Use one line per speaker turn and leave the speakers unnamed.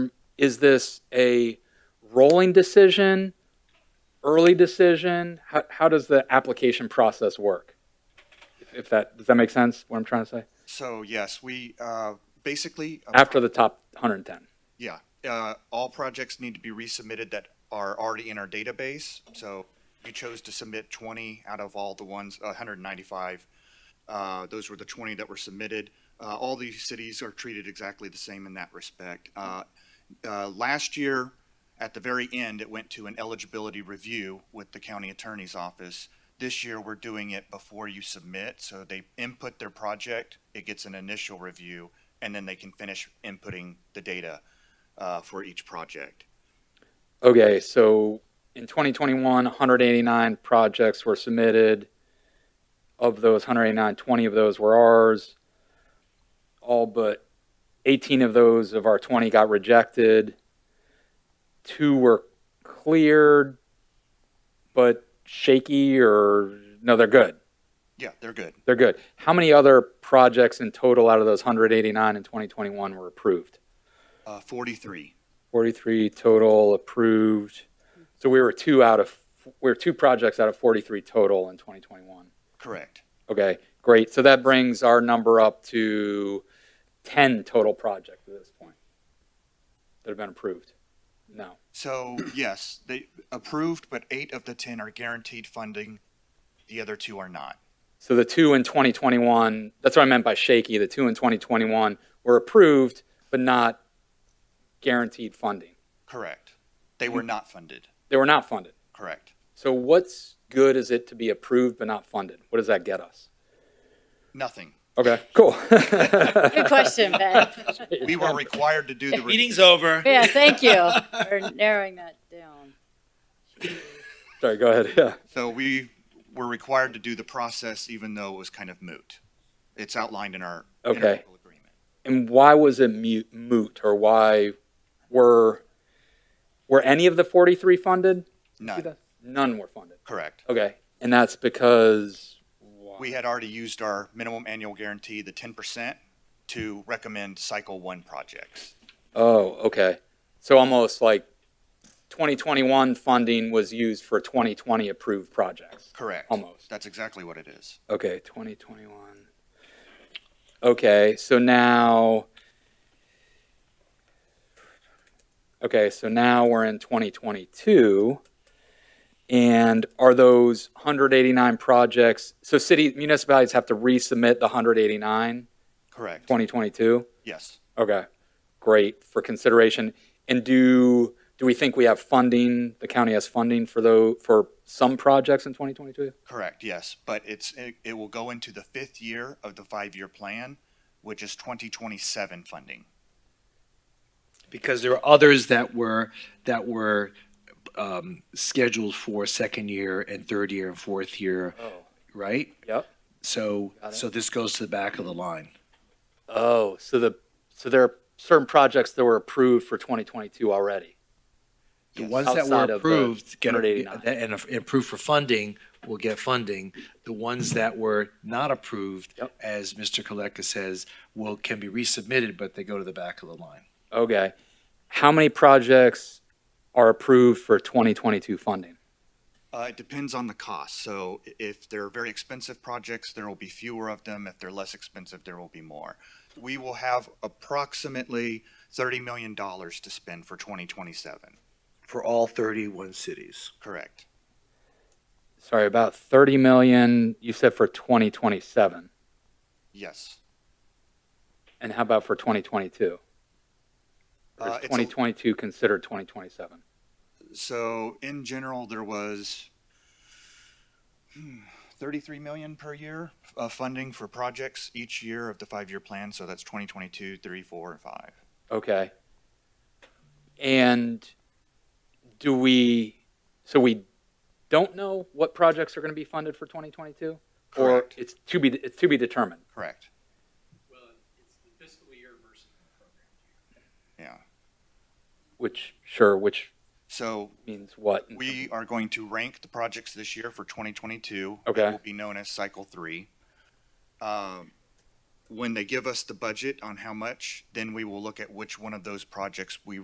Is this a rolling decision, early decision? How, how does the application process work? If- If that, does that make sense, what I'm trying to say?
So yes, we, uh, basically, uh,
After the top 110?
yeah, uh, all projects need to be resubmitted that are already in our database. So you chose to submit 20 out of all the ones, uh, 195. Uh, Those were the 20 that were submitted. Uh, All these cities are treated exactly the same in that respect. Uh, uh, Last year, at the very end, it went to an eligibility review with the county attorney's office. This year, we're doing it before you submit, so they input their project, it gets an initial review, and then they can finish inputting the data uh, for each project.
Okay, so in 2021, 189 projects were submitted. Of those 189, 20 of those were ours. All but 18 of those of our 20 got rejected. Two were cleared, but shaky or, no, they're good.
Yeah, they're good.
They're good. How many other projects in total out of those 189 in 2021 were approved?
Uh, 43.
43 total approved. So we were two out of, we were two projects out of 43 total in 2021.
Correct.
Okay, great. So that brings our number up to 10 total projects at this point that have been approved. No.
So, yes, they approved, but eight of the 10 are guaranteed funding. The other two are not.
So the two in 2021, that's what I meant by shaky. The two in 2021 were approved, but not guaranteed funding.
Correct. They were not funded.
They were not funded.
Correct.
So what's good is it to be approved but not funded? What does that get us?
Nothing.
Okay, cool.
Good question, Ben.
We were required to do the. re-
Meeting's over.
Yeah, thank you for narrowing that down.
Sorry, go ahead. Yeah.
So we were required to do the process even though it was kind of moot. It's outlined in our. in our
Okay.
local agreement.
And why was it mute, moot, or why were were any of the forty three funded?
None,
None were funded.
correct.
Okay, and that's because
We had already used our minimum annual guarantee, the 10%, to recommend cycle one projects.
oh, okay, so almost like twenty twenty one funding was used for twenty twenty approved projects.
Correct.
Almost.
That's exactly what it is.
Okay, 2021. Okay, so now. Okay, so now we're in 2022. And are those 189 projects? So city municipalities have to resubmit the 189
Correct.
2022.
Yes.
Okay, great for consideration. And do do we think we have funding? The county has funding for those for some projects in 2022.
Correct, yes, but it's, it, it will go into the fifth year of the five-year plan, which is twenty twenty-seven funding.
Because there are others that were, that were um, scheduled for second year and third year and fourth year,
Oh.
right?
Yep.
So,
Got it.
so this goes to the back of the line.
Oh, so the, so there are certain projects that were approved for 2022 already.
The
Yes.
ones that were
Outside of the
approved, get,
189.
and if approved for funding, will get funding. The ones that were not approved,
Yep.
as Mr. Koleka says, will, can be resubmitted, but they go to the back of the line.
Okay. How many projects are approved for 2022 funding?
Uh, it depends on the cost, so i- if they're very expensive projects, there will be fewer of them. If they're less expensive, there will be more. We will have approximately thirty million dollars to spend for twenty twenty-seven,
For all 31 cities.
correct?
Sorry, about 30 million, you said for 2027.
Yes.
And how about for 2022? Or
Uh,
is
it's a-
2022 considered 2027?
So in general, there was hmm, 33 million per year of funding for projects each year of the five-year plan. So that's 2022, 3, 4, and 5.
Okay. And do we, so we don't know what projects are going to be funded for 2022? Or
Correct.
it's to be, it's to be determined?
Correct.
Well, it's the fiscal year versus the program.
Yeah.
Which, sure, which
So
means what?
we are going to rank the projects this year for 2022.
Okay.
It will be known as cycle three. Um, when they give us the budget on how much, then we will look at which one of those projects we